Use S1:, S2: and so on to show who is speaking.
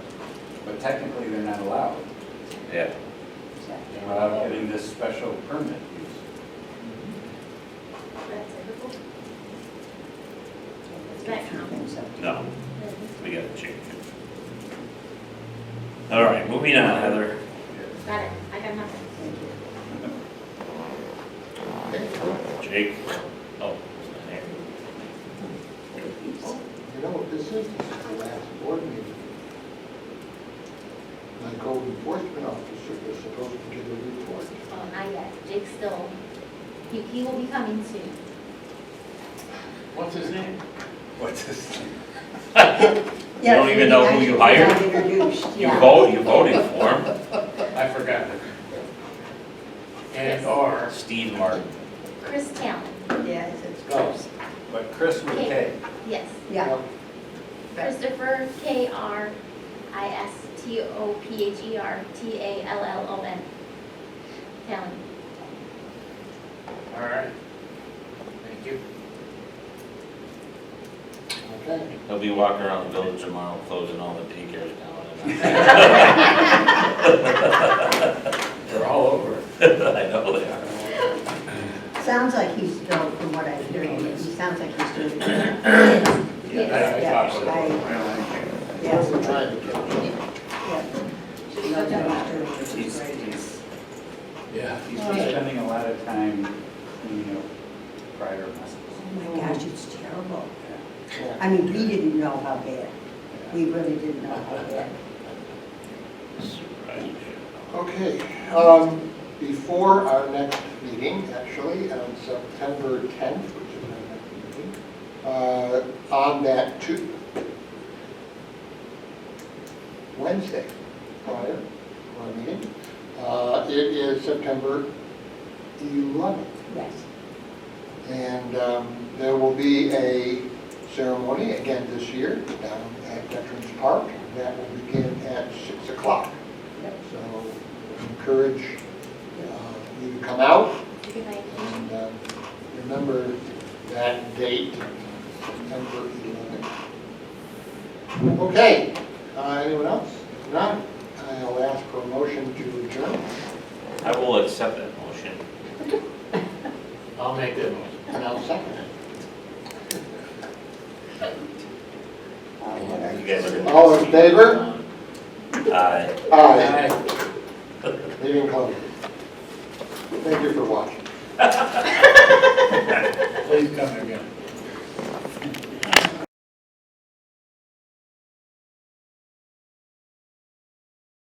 S1: but technically they're not allowed.
S2: Yeah,
S1: They're allowed getting this special permit use.
S3: It's not common, so.
S2: no, we gotta change it. All right, moving on, Heather.
S3: Got it, I got nothing.
S2: Jake? Oh, he's not here.
S4: You know, if this is the last board meeting, my code enforcement officer was supposed to give a report.
S3: Well, Oh, not yet, Jake's still, he, he will be coming soon.
S2: What's his name?
S1: What's this?
S2: You don't even know who you hired? You
S3: Yeah.
S2: vote, you voted for him,
S1: I forgot.
S3: Yes.
S1: And or,
S2: Steve Martin.
S3: Chris Talon,
S5: Yes, it's
S1: Oh.
S5: gross.
S1: but Chris with K.
S3: yes,
S5: Yeah.
S3: Christopher K R I S T O P H E R T A L L O N. Talon,
S1: All right. Thank you.
S4: Okay,
S2: He'll be walking around the village tomorrow closing all the daycares down.
S1: They're all over. it.
S2: I know they are.
S5: Sounds like he's still, from what I'm hearing, he sounds like he's doing it.
S1: I- I
S5: Yeah,
S1: thought so.
S4: I wasn't trying to catch you.
S5: yeah.
S3: should we go down?
S2: He's-
S5: Right.
S2: he's-
S1: Yeah, he's
S5: All
S1: been
S5: right.
S1: spending a lot of time, you know, prior muscles.
S5: Oh my gosh, it's terrible.
S1: Yeah,
S5: I mean, we didn't know how bad,
S1: yeah.
S5: we really didn't know how bad.
S2: Surprise.
S4: Okay, um, before our next meeting, actually, on September 10th, which is our next meeting, uh, on that Tu- Wednesday, prior to our meeting, uh, it is September 11th.
S5: Yes,
S4: And um, there will be a ceremony again this year down at Veterans Park. That will begin at 6 o'clock.
S5: Yep.
S4: So encourage uh, you to come out
S3: You can like-
S4: and um, remember that date, September 11th. Okay, uh, anyone else? If not, I'll ask for a motion to adjourn.
S2: I will accept that motion.
S4: I'll make that motion. And I'll second it.
S2: You guys are. gonna-
S4: All in favor?
S2: Aye.
S4: Aye.
S1: Aye.
S4: Meeting closed. Thank you for watching.
S1: Please come again.